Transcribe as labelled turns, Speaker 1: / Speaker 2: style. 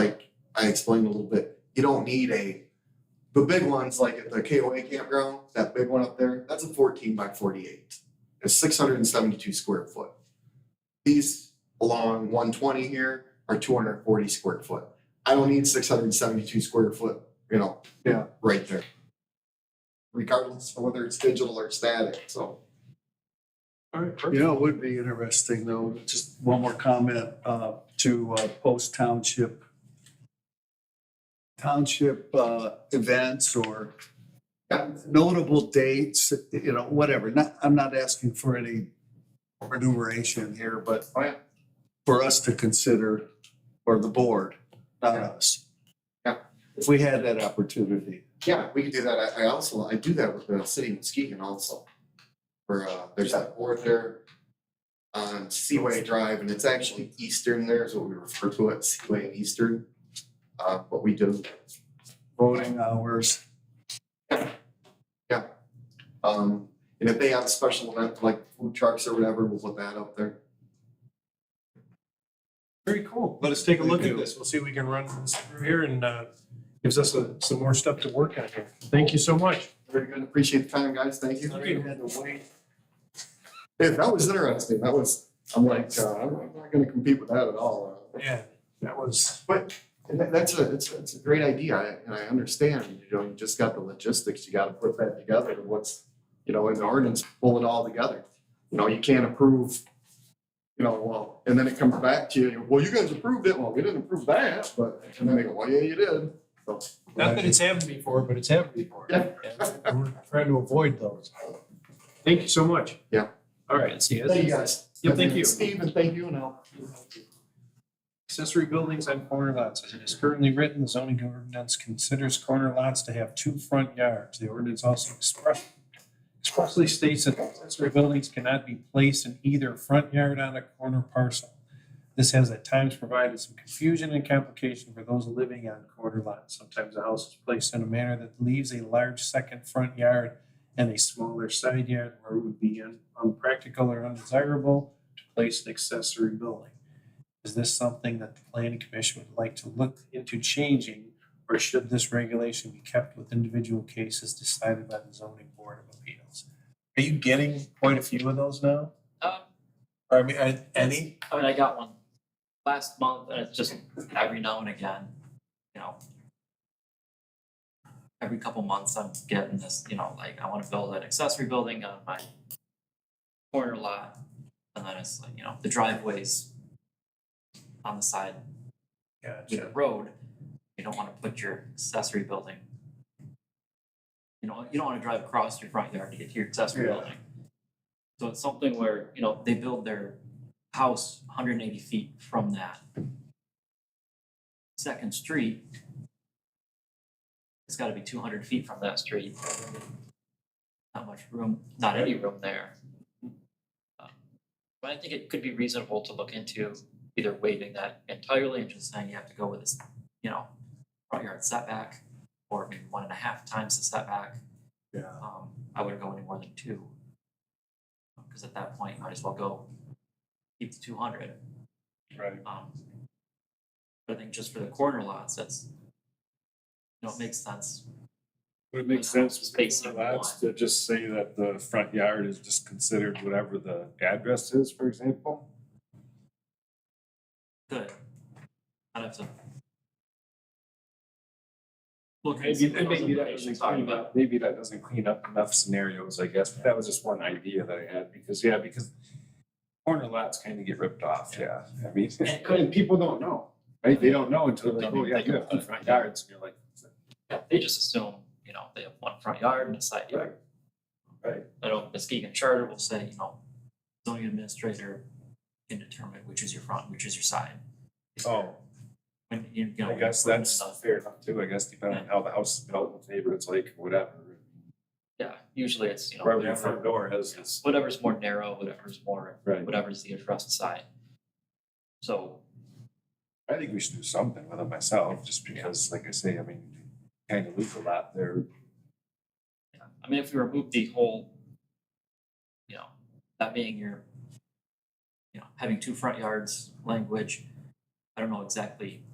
Speaker 1: I explained a little bit, you don't need a, the big ones like at the KOA campground, that big one up there, that's a fourteen by forty-eight. It's six hundred and seventy-two square foot. These along one twenty here are two hundred and forty square foot. I don't need six hundred and seventy-two square foot, you know, yeah, right there. Regardless of whether it's digital or static, so.
Speaker 2: You know, it would be interesting though, just one more comment, uh, to, uh, post township. Township, uh, events or notable dates, you know, whatever. Not, I'm not asking for any remuneration here, but
Speaker 1: Oh, yeah.
Speaker 2: for us to consider, or the board, not
Speaker 1: Yeah.
Speaker 2: us.
Speaker 1: Yeah.
Speaker 2: If we had that opportunity.
Speaker 1: Yeah, we could do that. I, I also, I do that with the city of Muskegon also. Where, uh, there's that board there on Seaway Drive and it's actually Eastern there is what we refer to it, Seaway and Eastern. Uh, what we do,
Speaker 2: Voting hours.
Speaker 1: um, and if they have a special event like food trucks or whatever, we'll put that up there.
Speaker 3: Very cool. Let us take a
Speaker 2: Thank
Speaker 3: look at
Speaker 2: you.
Speaker 3: this. We'll see if we can run this through here and uh, gives us a- some more stuff to work on here. Thank you so much.
Speaker 1: Very good. Appreciate the time, guys. Thank you.
Speaker 3: Sorry you
Speaker 1: Yeah, that was interesting. That was, I'm like, uh, I'm I'm not gonna compete with that at all. Uh,
Speaker 3: Yeah, that was,
Speaker 1: But and that- that's a, it's, it's a great idea, I- and I understand, you know, you just got the logistics, you gotta put that together, and what's, you know, in the ordinance, pull it all together. You know, you can't approve, you know, well, and then it comes back to you, well, you guys approved it, well, we didn't approve that, but, and then they go, well, yeah, you did. So,
Speaker 3: not that it's happened before, but it's happened before.
Speaker 1: Yeah.
Speaker 3: And We're trying to avoid those. Thank you so much.
Speaker 1: Yeah.
Speaker 3: All right, see you.
Speaker 1: Thank you guys.
Speaker 3: Yeah, thank you.
Speaker 1: Steve, and thank you, and I'll.
Speaker 3: Accessory buildings on corner lots, as it is currently written, the zoning ordinance considers corner lots to have two front yards. The ordinance also express- expressly states that accessory buildings cannot be placed in either front yard on a corner parcel. This has at times provided some confusion and complication for those living on corner lots. Sometimes a house is placed in a manner that leaves a large second front yard and a smaller side yard where it would be un- unpractical or undesirable to place an accessory building. Is this something that the planning commission would like to look into changing? Or should this regulation be kept with individual cases decided by the zoning board of appeals? Are you getting quite a few of those now?
Speaker 4: Um,
Speaker 3: Or I mean, are- any?
Speaker 4: I mean, I got one last month, and it's just every now and again, you know. Every couple months, I'm getting this, you know, like, I wanna build an accessory building on my corner lot, and then it's like, you know, the driveways on the side of
Speaker 3: Gotcha.
Speaker 4: the road, you don't wanna put your accessory building. You know, you don't wanna drive across your front yard to get to your accessory
Speaker 2: Yeah.
Speaker 4: building. So it's something where, you know, they build their house hundred and eighty feet from that second street. It's gotta be two hundred feet from that street. Not much room, not any room there. Uh, But I think it could be reasonable to look into either waiving that entirely and just saying you have to go with this, you know, front yard setback or maybe one and a half times the setback.
Speaker 2: Yeah.
Speaker 4: Um, I wouldn't go any more than two. Um, Cause at that point, you might as well go keep the two hundred.
Speaker 3: Right.
Speaker 4: Um, but I think just for the corner lots, that's, you know, it makes sense.
Speaker 5: Would it make
Speaker 4: Those
Speaker 5: sense
Speaker 4: houses
Speaker 5: with
Speaker 4: facing
Speaker 5: corner lots
Speaker 4: one.
Speaker 5: to just say that the front yard is just considered whatever the address is, for example?
Speaker 4: Good. I'd have to. Look. and
Speaker 5: Maybe,
Speaker 4: see what those
Speaker 5: maybe that doesn't
Speaker 4: implications are,
Speaker 5: clean
Speaker 4: but-
Speaker 5: up, maybe that doesn't clean up enough scenarios, I guess, but that was just one idea that I had, because, yeah, because corner lots kind of get ripped off, yeah, I mean, and people don't know, right? They don't know until like,
Speaker 4: Don't
Speaker 5: oh,
Speaker 4: even
Speaker 5: yeah,
Speaker 4: think
Speaker 5: you have
Speaker 4: about
Speaker 5: two
Speaker 4: it.
Speaker 5: front yards, and you're like,
Speaker 4: Yeah, they just assume, you know, they have one front yard and a side yard.
Speaker 5: Right.
Speaker 4: I know Muskegon Charter will say, you know, zoning administrator can determine which is your front, which is your side.
Speaker 5: oh,
Speaker 4: When you, you know.
Speaker 5: I guess
Speaker 4: when
Speaker 5: that's
Speaker 4: it's-
Speaker 5: fair enough too, I guess, depending on how the house is built, what the neighborhood's like, whatever.
Speaker 4: Yeah, usually it's, you know,
Speaker 5: Wherever your front
Speaker 4: whatever,
Speaker 5: door has this,
Speaker 4: whatever's more narrow, whatever's more,
Speaker 5: right?
Speaker 4: whatever's the addressed side. So,
Speaker 5: I think we should do something with it myself, just because, like I say, I mean, kind of lose a lot there.
Speaker 4: yeah, I mean, if we remove the whole, you know, that being your, you know, having two front yards language, I don't know exactly